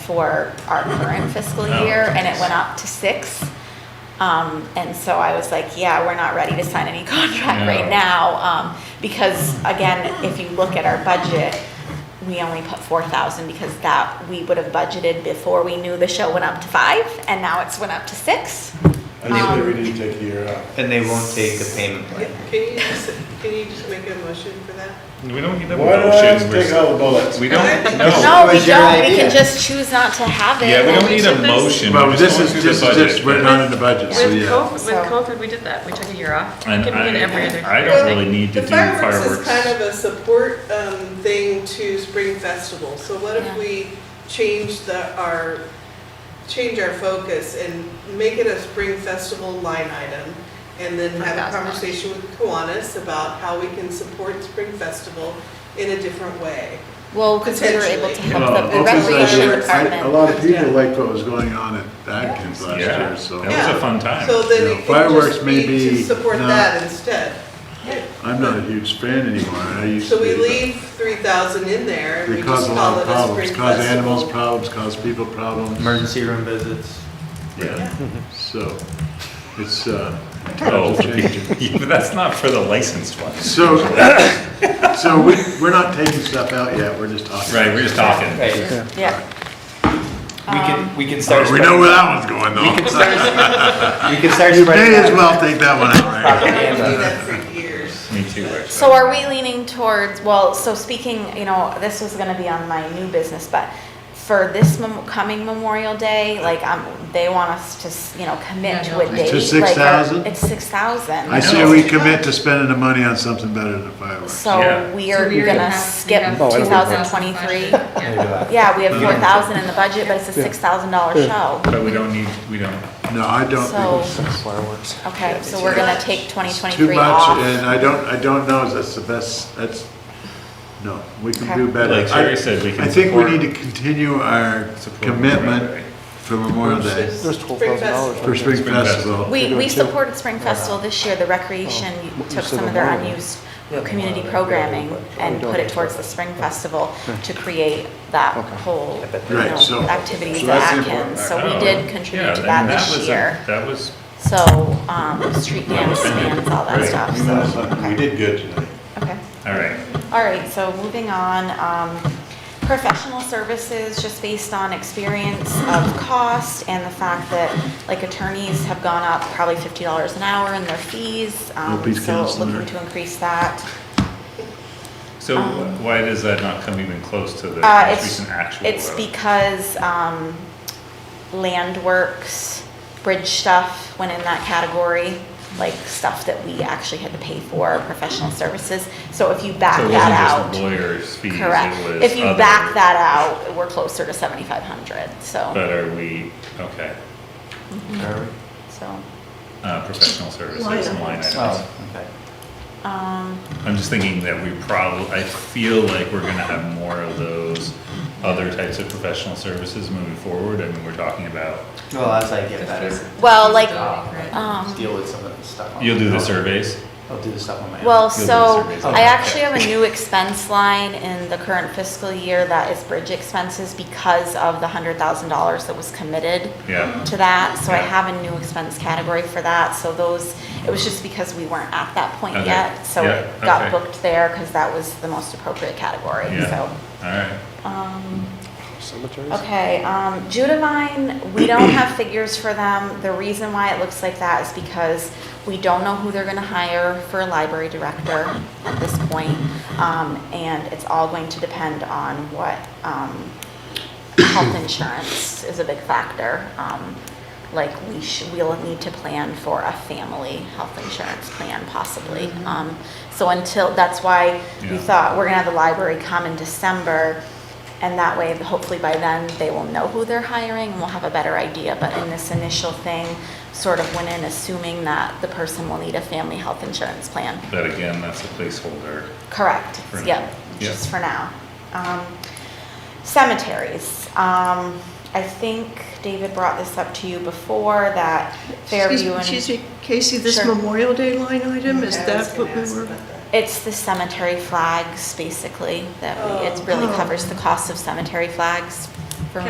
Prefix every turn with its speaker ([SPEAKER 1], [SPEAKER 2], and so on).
[SPEAKER 1] for our current fiscal
[SPEAKER 2] Oh.
[SPEAKER 1] year, and it went up to six. Um, and so I was like, yeah, we're not ready to sign any contract right
[SPEAKER 2] No.
[SPEAKER 1] now, um, because again, if you look at our budget, we only put four thousand because that, we would have budgeted before we knew the show went up to five, and now it's went up to six.
[SPEAKER 3] I just
[SPEAKER 1] Um,
[SPEAKER 3] think we need to take a year out.
[SPEAKER 4] And they won't take the payment
[SPEAKER 5] Can
[SPEAKER 4] plan.
[SPEAKER 5] you just, can you just make a motion for that?
[SPEAKER 2] We don't need that
[SPEAKER 3] Why don't I
[SPEAKER 2] motion.
[SPEAKER 3] just take
[SPEAKER 2] We're-
[SPEAKER 3] all the bullets?
[SPEAKER 2] We don't, no.
[SPEAKER 1] No, we
[SPEAKER 4] was your
[SPEAKER 1] don't, we
[SPEAKER 4] idea.
[SPEAKER 1] can just choose not to have it.
[SPEAKER 2] Oh. Yeah, we don't need a
[SPEAKER 6] Well, we-
[SPEAKER 2] motion.
[SPEAKER 3] Well,
[SPEAKER 2] We're
[SPEAKER 3] this
[SPEAKER 2] going
[SPEAKER 3] is,
[SPEAKER 2] through the
[SPEAKER 3] this is
[SPEAKER 2] budget.
[SPEAKER 3] just written on in the budget, so
[SPEAKER 6] With
[SPEAKER 3] yeah.
[SPEAKER 6] COVID, with
[SPEAKER 1] So-
[SPEAKER 6] COVID, we did that, we took a year off.
[SPEAKER 2] And
[SPEAKER 6] Can we
[SPEAKER 2] I,
[SPEAKER 6] get every other-
[SPEAKER 2] I don't really need to
[SPEAKER 5] The
[SPEAKER 2] do fireworks.
[SPEAKER 5] is kind of a support um, thing to Spring Festival, so what
[SPEAKER 1] Yeah.
[SPEAKER 5] if we change the, our, change our focus and make it a Spring Festival line item? And then have a
[SPEAKER 6] $5,000.
[SPEAKER 5] conversation with Kiwanis about how we can support Spring Festival in a different way.
[SPEAKER 1] Well, because we were able to
[SPEAKER 5] Potentially.
[SPEAKER 1] help the- the
[SPEAKER 3] Well, this is
[SPEAKER 1] recreation
[SPEAKER 3] actually- A
[SPEAKER 1] department.
[SPEAKER 3] lot of people liked what was going on at Atkins
[SPEAKER 2] Yeah,
[SPEAKER 3] last year,
[SPEAKER 2] that
[SPEAKER 3] so
[SPEAKER 2] was a fun
[SPEAKER 5] So
[SPEAKER 2] time.
[SPEAKER 3] Yeah,
[SPEAKER 5] then it can
[SPEAKER 3] fireworks
[SPEAKER 5] just
[SPEAKER 3] may
[SPEAKER 5] be to
[SPEAKER 3] be
[SPEAKER 5] support
[SPEAKER 3] not-
[SPEAKER 5] that instead.
[SPEAKER 3] I'm not a huge fan anymore. I used to
[SPEAKER 5] So
[SPEAKER 3] be.
[SPEAKER 5] we
[SPEAKER 3] but
[SPEAKER 5] leave three thousand in there and
[SPEAKER 3] They
[SPEAKER 5] we just
[SPEAKER 3] cause a
[SPEAKER 5] call
[SPEAKER 3] lot
[SPEAKER 5] it
[SPEAKER 3] of
[SPEAKER 5] a
[SPEAKER 3] problems,
[SPEAKER 5] Spring
[SPEAKER 3] cause animals
[SPEAKER 5] Festival.
[SPEAKER 3] problems, cause people problems,
[SPEAKER 4] Emergency room visits.
[SPEAKER 3] yeah, so, it's, uh,
[SPEAKER 2] Oh,
[SPEAKER 3] times are changing.
[SPEAKER 2] But that's not for the licensed ones.
[SPEAKER 3] So, so we, we're not taking stuff out yet, we're just talking.
[SPEAKER 2] Right, we're just talking.
[SPEAKER 4] Right.
[SPEAKER 1] Yeah.
[SPEAKER 4] We can, we can start.
[SPEAKER 3] Uh, We know where that one's going
[SPEAKER 4] spreading- We can
[SPEAKER 3] though.
[SPEAKER 4] start. We can start
[SPEAKER 3] You may as
[SPEAKER 4] spreading
[SPEAKER 3] well take that one out right?
[SPEAKER 5] I haven't
[SPEAKER 4] propaganda.
[SPEAKER 5] done that for years.
[SPEAKER 2] Me too, actually.
[SPEAKER 1] So are we leaning towards, well, so speaking, you know, this was gonna be on my new business, but for this mem- coming Memorial Day, like, um, they want us to, s- you know, commit
[SPEAKER 6] Yeah,
[SPEAKER 1] to a
[SPEAKER 6] no.
[SPEAKER 1] date.
[SPEAKER 3] To
[SPEAKER 1] like, or-
[SPEAKER 3] 6,000?
[SPEAKER 1] It's six thousand.
[SPEAKER 3] I say we commit to spending the money on something better than fireworks.
[SPEAKER 2] Yeah.
[SPEAKER 1] So we
[SPEAKER 6] So
[SPEAKER 1] are
[SPEAKER 6] we
[SPEAKER 1] gonna
[SPEAKER 6] have- we
[SPEAKER 1] skip
[SPEAKER 6] have
[SPEAKER 1] two thousand twenty-three.
[SPEAKER 6] 2023. Yeah.
[SPEAKER 1] Yeah, we have four thousand in the budget, but it's a six thousand dollar show.
[SPEAKER 2] But we don't need, we don't,
[SPEAKER 3] No, I don't
[SPEAKER 1] So,
[SPEAKER 3] think
[SPEAKER 4] Fireworks.
[SPEAKER 1] okay, so we're gonna take twenty
[SPEAKER 3] it's too
[SPEAKER 1] twenty-three
[SPEAKER 3] much,
[SPEAKER 1] off.
[SPEAKER 3] and I don't, I don't know if that's the best, that's, no, we can do
[SPEAKER 1] Okay.
[SPEAKER 3] better.
[SPEAKER 2] Like Sherry said, we can
[SPEAKER 3] I think we
[SPEAKER 2] support-
[SPEAKER 3] need to continue our
[SPEAKER 2] Support Memorial Day.
[SPEAKER 3] commitment for Memorial Day,
[SPEAKER 5] There's twelve thousand dollars.
[SPEAKER 3] for Spring
[SPEAKER 2] Spring Festival.
[SPEAKER 3] Festival.
[SPEAKER 1] We,
[SPEAKER 7] They're
[SPEAKER 1] we
[SPEAKER 7] doing two. Oh,
[SPEAKER 1] supported Spring Festival this year, the recreation took
[SPEAKER 7] said
[SPEAKER 1] some of their
[SPEAKER 7] Memorial.
[SPEAKER 1] unused
[SPEAKER 7] Yeah,
[SPEAKER 1] community
[SPEAKER 7] Memorial Day,
[SPEAKER 1] programming
[SPEAKER 7] yeah, but-
[SPEAKER 1] and put it towards the Spring Festival to create that whole, you
[SPEAKER 3] Right,
[SPEAKER 1] know,
[SPEAKER 3] so-
[SPEAKER 1] activities
[SPEAKER 3] so
[SPEAKER 1] at
[SPEAKER 3] that's the important
[SPEAKER 1] Atkins. So we
[SPEAKER 2] Oh,
[SPEAKER 1] did contribute
[SPEAKER 2] yeah,
[SPEAKER 1] to
[SPEAKER 2] and
[SPEAKER 1] that this
[SPEAKER 2] was a-
[SPEAKER 1] year.
[SPEAKER 2] That was,
[SPEAKER 1] So, um, street dance, bands, all that
[SPEAKER 2] Right.
[SPEAKER 1] stuff, so,
[SPEAKER 3] We did good tonight.
[SPEAKER 1] okay.
[SPEAKER 2] all right.
[SPEAKER 1] All right, so moving on, um, professional services, just based on experience of cost and the fact that, like, attorneys have gone up probably fifty dollars an hour in their fees. um,
[SPEAKER 3] Will be
[SPEAKER 1] So
[SPEAKER 3] counseling.
[SPEAKER 1] looking to increase that.
[SPEAKER 2] So
[SPEAKER 1] Um,
[SPEAKER 2] why does that not come even close to the
[SPEAKER 1] Uh,
[SPEAKER 2] most
[SPEAKER 1] it's,
[SPEAKER 2] recent actual?
[SPEAKER 1] it's
[SPEAKER 2] though?
[SPEAKER 1] because, um, land works, bridge stuff went in that category, like, stuff that we actually had to pay for, professional services. So if you back
[SPEAKER 2] So it
[SPEAKER 1] that out.
[SPEAKER 2] wasn't just lawyer's fees, it
[SPEAKER 1] Correct.
[SPEAKER 2] was
[SPEAKER 1] If you
[SPEAKER 2] other-
[SPEAKER 1] back that out, we're closer to seventy-five hundred, so,
[SPEAKER 2] But are we, okay,
[SPEAKER 1] so,
[SPEAKER 2] uh, professional services and line items.
[SPEAKER 4] Oh, okay.
[SPEAKER 1] um,
[SPEAKER 2] I'm just thinking that we probably, I feel like we're gonna have more of those other types of professional services moving forward. I mean, we're talking about,
[SPEAKER 4] Well, as I get better,
[SPEAKER 1] well, like,
[SPEAKER 6] Right.
[SPEAKER 1] um,
[SPEAKER 4] deal with some of the stuff. on-
[SPEAKER 2] you'll do the surveys?
[SPEAKER 4] I'll do the stuff on my own.
[SPEAKER 1] well,
[SPEAKER 2] You'll do
[SPEAKER 1] so,
[SPEAKER 2] surveys.
[SPEAKER 1] I actually have a new expense line in the current fiscal year that is bridge expenses because of the hundred thousand dollars that was committed
[SPEAKER 2] Yeah.
[SPEAKER 1] to that, so I
[SPEAKER 2] Yeah.
[SPEAKER 1] have a new expense category for that, so those, it was just because we weren't at that point
[SPEAKER 2] Okay.
[SPEAKER 1] yet, so
[SPEAKER 2] Yeah,
[SPEAKER 1] it got
[SPEAKER 2] okay.
[SPEAKER 1] booked there, cause that was the most appropriate category, so,
[SPEAKER 2] Yeah, all right.
[SPEAKER 1] um.
[SPEAKER 7] Cemeteries?
[SPEAKER 1] Okay, um, Judavine, we don't have figures for them. The reason why it looks like that is because we don't know who they're gonna hire for a library director at this point. Um, and it's all going to depend on what, um, health insurance is a big factor. Um, like we should, we'll need to plan for a family health insurance plan possibly. Um, so until, that's why we
[SPEAKER 2] Yeah.
[SPEAKER 1] thought we're gonna have the library come in December. And that way, hopefully by then, they will know who they're hiring and we'll have a better idea. But in this initial thing, sort of went in assuming that the person will need a family health insurance plan.
[SPEAKER 2] But again, that's a placeholder.
[SPEAKER 1] Correct,
[SPEAKER 2] For now.
[SPEAKER 1] yep,
[SPEAKER 2] Yeah.
[SPEAKER 1] just for now. Um, Cemeteries, um, I think David brought this up to you before, that
[SPEAKER 8] Excuse-
[SPEAKER 1] Fairview
[SPEAKER 8] Excuse
[SPEAKER 1] and,
[SPEAKER 8] me, Casey, this
[SPEAKER 1] Sure.
[SPEAKER 8] Memorial Day line item, is
[SPEAKER 5] I was
[SPEAKER 8] that what
[SPEAKER 5] gonna
[SPEAKER 8] we
[SPEAKER 5] ask
[SPEAKER 8] were?
[SPEAKER 5] about that.
[SPEAKER 1] it's the cemetery flags, basically, that we- it
[SPEAKER 5] Oh.
[SPEAKER 1] really
[SPEAKER 8] Oh.
[SPEAKER 1] covers the cost of cemetery flags.